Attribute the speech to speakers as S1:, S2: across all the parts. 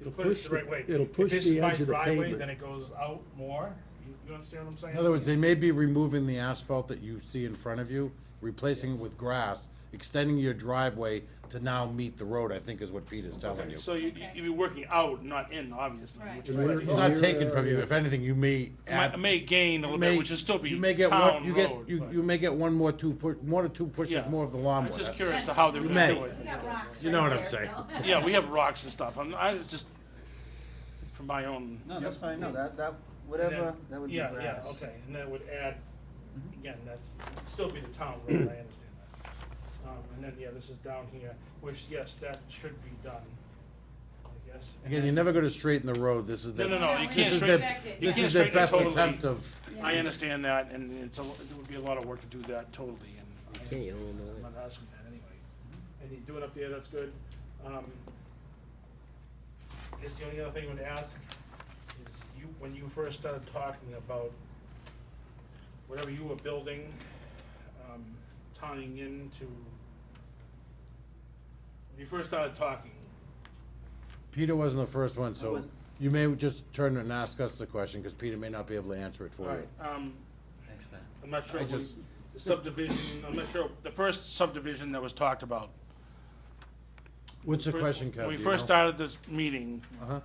S1: It'll
S2: put it
S1: push
S2: the
S1: the-
S2: right way.
S1: it'll
S2: If
S1: push
S2: this
S1: the
S2: is my
S1: edge of the
S2: driveway,
S1: pavement.
S2: Then it goes out more, you, you understand what I'm saying?
S3: In other words, they may be removing the asphalt that you see in front of you, replacing it with grass, extending your driveway to now meet the road, I think is what Pete is telling you.
S2: So you, you- you'd be working out, not in, obviously,
S4: Right.
S2: which
S1: Right.
S2: might-
S3: It's not taken from you, if anything, you may
S2: might,
S3: add.
S2: may gain a
S3: you
S2: little
S3: may-
S2: bit, which would still be
S3: you may get one-
S2: town
S3: you get-
S2: road,
S3: You,
S2: but-
S3: you may get one more two, pu- one or two pushes
S2: Yeah.
S3: more of the lawnmower.
S2: I'm just
S3: That's-
S2: curious to how they're
S4: You
S2: gonna
S3: may.
S2: do it.
S4: We got rocks
S3: You know
S4: right
S3: what I'm
S4: there,
S3: saying.
S4: so-
S2: Yeah, we have rocks and stuff, I'm, I was just, from my own.
S5: No, that's fine, no, that, that, whatever, that would be Mm-hmm.
S2: Yeah,
S5: grass.
S2: yeah, okay, and that would add, again, that's, it'd still be the town road, I understand that. Um, and then, yeah, this is down here, which, yes, that should be done, I guess. and
S3: Again, you're
S2: then-
S3: never gonna straighten the road, this is
S2: No,
S3: the.
S2: no, no, you
S4: No, we
S2: can't
S3: This is
S4: straight-
S3: their,
S2: straighten, you
S3: this
S2: can't
S3: is their
S2: straighten it
S3: best
S2: totally.
S3: attempt of,
S2: I understand that, and it's a, it would be a lot of work to do that totally, and. I
S6: Okay, you
S2: understand
S6: don't
S2: that.
S6: know.
S2: I'm not asking that anyway. And you do it up there, that's good. Um, I guess the only other thing I would ask is you, when you first started talking about whatever you were building, um, tying into, when you first started talking,
S3: Peter wasn't the first one,
S5: I
S3: so
S5: wasn't.
S3: you may just turn and ask us the question, cause Peter may not be able to answer it for you.
S2: alright, um,
S5: Thanks, Pat.
S2: I'm not sure
S3: I
S2: when
S3: just-
S2: the subdivision, I'm not sure, the first subdivision that was talked about.
S3: What's the
S2: Fir-
S3: question, Kev?
S2: When we
S3: do you
S2: first
S3: know?
S2: started this meeting,
S3: Uh-huh.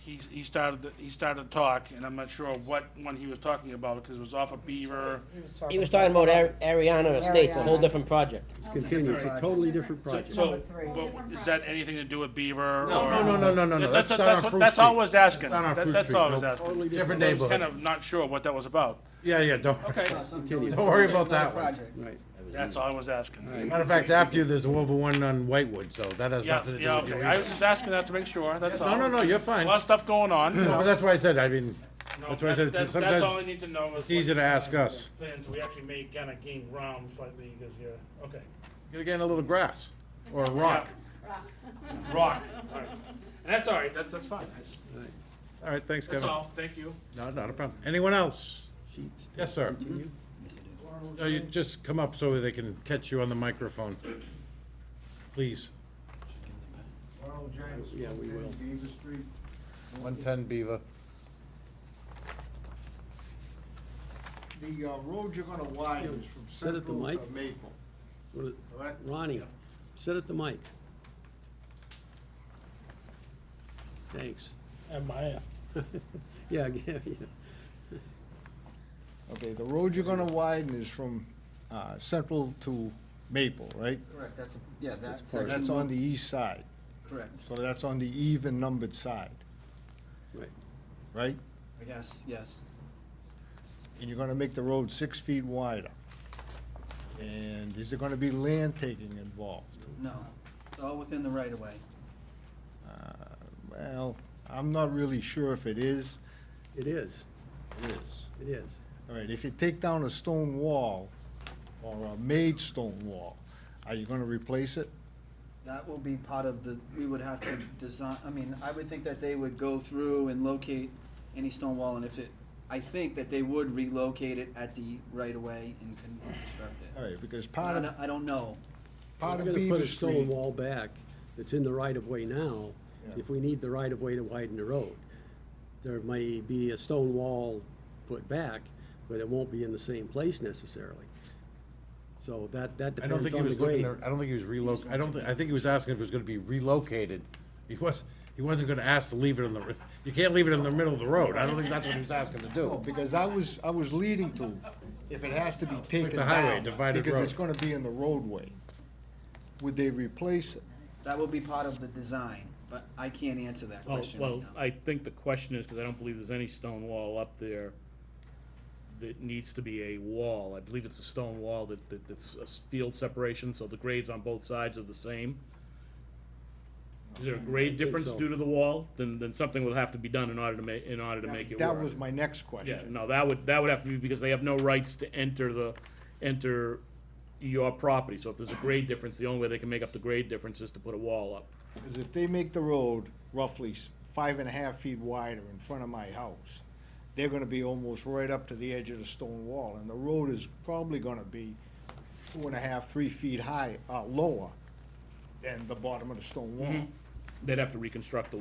S2: he, he started, the- he started to talk, and I'm not sure what one he was talking about, because it was off of Beaver.
S6: He was talking about Ari- Ariana Estates, a whole different project.
S1: It's continued, it's a totally different
S2: So-
S1: project.
S2: So,
S7: three.
S2: but is that anything to do with Beaver?
S3: No,
S2: or-
S3: no, no, no, no, no, no.
S2: That's,
S3: That's not
S2: that's,
S3: on Fruit
S2: that's all I
S3: Street.
S2: was asking.
S3: That's not on
S2: That-
S3: Fruit
S2: That's
S3: Street,
S2: all I was
S3: no.
S1: Totally
S2: asking.
S3: Different
S2: So I was kind
S3: neighborhood.
S2: of not sure what that was about.
S3: Yeah, yeah, don't.
S2: Okay,
S5: No, something
S1: Continue.
S5: totally
S3: Don't worry
S5: different,
S3: about
S5: another
S3: that one.
S5: project.
S1: Right.
S2: that's all I was asking.
S3: Matter of fact, after you, there's over one on Whitewood, so that has
S2: Yeah,
S3: nothing to do
S2: yeah,
S3: with you
S2: okay. I was
S3: either.
S2: just asking that to make sure, that's all.
S3: No, no, no, you're
S2: A
S3: fine.
S2: lot of stuff going on.
S3: No, But that's why I said, I mean,
S2: No,
S3: That's why I
S2: that-
S3: said it's-
S2: that's-
S3: sometimes
S2: That's all I need to know. is
S3: it's easier
S2: what-
S3: to ask us.
S2: Plans, we actually may kind of gain ground slightly because you're, okay.
S3: you're getting a little grass or a rock.
S4: Rock.
S2: Rock, all right. And that's all right, that's, that's fine. That's-
S3: All right, thanks,
S2: That's
S3: Kevin.
S2: all, thank you.
S3: No, not a problem. Anyone else?
S1: Sheets. to
S3: Yes, sir.
S1: Continue.
S3: No, you just come up so they can catch you on the microphone. Please.
S8: Ronald James,
S1: Yeah, we will.
S8: 110 Beaver Street.
S3: One-ten Beaver.
S8: The uh, road you're gonna widen is from
S1: Sit at the
S8: Central
S1: mic.
S8: to Maple,
S1: What is-
S8: correct?
S1: Ronnie, sit at the mic. Thanks.
S2: Am I?
S1: Yeah, yeah, yeah.
S8: Okay, the road you're gonna widen is from uh, Central to Maple, right?
S5: Correct, that's, a- yeah, that
S8: So
S5: section,
S8: That's on the east side,
S5: correct,
S8: so that's on the even numbered side,
S1: Right.
S8: right?
S5: I guess, yes,
S8: And you're gonna make the road six feet wider. And is there gonna be land taking involved?
S5: no, it's all within the right of way.
S8: Uh, Well, I'm not really sure if it is.
S1: It is,
S8: It is.
S1: it is.
S8: All right, if you take down a stone wall, or a made stone wall, are you gonna replace it?
S5: That will be part of the, we would have to design, I mean, I would think that they would go through and locate any stone wall, and if it, I think that they would relocate it at the right of way and con- construct
S8: All
S5: it.
S8: right, because
S5: I
S8: part
S5: don't,
S8: of,
S5: I don't know,
S8: part
S1: We're
S8: of
S1: gonna put
S8: Beaver
S1: a stone
S8: Street,
S1: wall back that's in the right of way now,
S8: Yeah.
S1: if we need the right of way to widen the road. There may be a stone wall put back, but it won't be in the same place necessarily. So that, that
S3: I don't
S1: depends
S3: think he
S1: on the
S3: was looking,
S1: grade.
S3: to- I don't think he was reloc, I don't, thi- I think he was asking if it was gonna be relocated. He was, he wasn't gonna ask to leave it in the, r- you can't leave it in the middle of the road. I don't think that's what he was asking to
S8: No,
S3: do.
S8: because I was, I was leading to, if it has to be taken
S3: the highway,
S8: down,
S3: divided
S8: because
S3: road.
S8: it's gonna be in the roadway, would they replace it?
S5: that will be part of the design, but I can't answer that
S9: Well,
S5: question right
S9: Oh, well,
S5: now.
S9: I think the question is, because I don't believe there's any stone wall up there that needs to be a wall. I believe it's a stone wall that, that, that's a s- field separation, so the grades on both sides are the same. Is there a grade difference
S1: so.
S9: due to the wall? Then, then something will have to be done in order to ma, in order to make it work.
S8: That was my next
S9: Yeah,
S8: question.
S9: no, that would, that would have to be, because they have no rights to enter the, enter your property. So if there's a grade difference, the only way they can make up the grade difference is to put a wall up.
S8: Because if they make the road roughly s- five and a half feet wider in front of my house, they're gonna be almost right up to the edge of the stone wall, and the road is probably gonna be two and a half, three feet high, uh, lower than the bottom of the stone wall.
S3: Mm-hmm.
S9: They'd have to reconstruct the wall.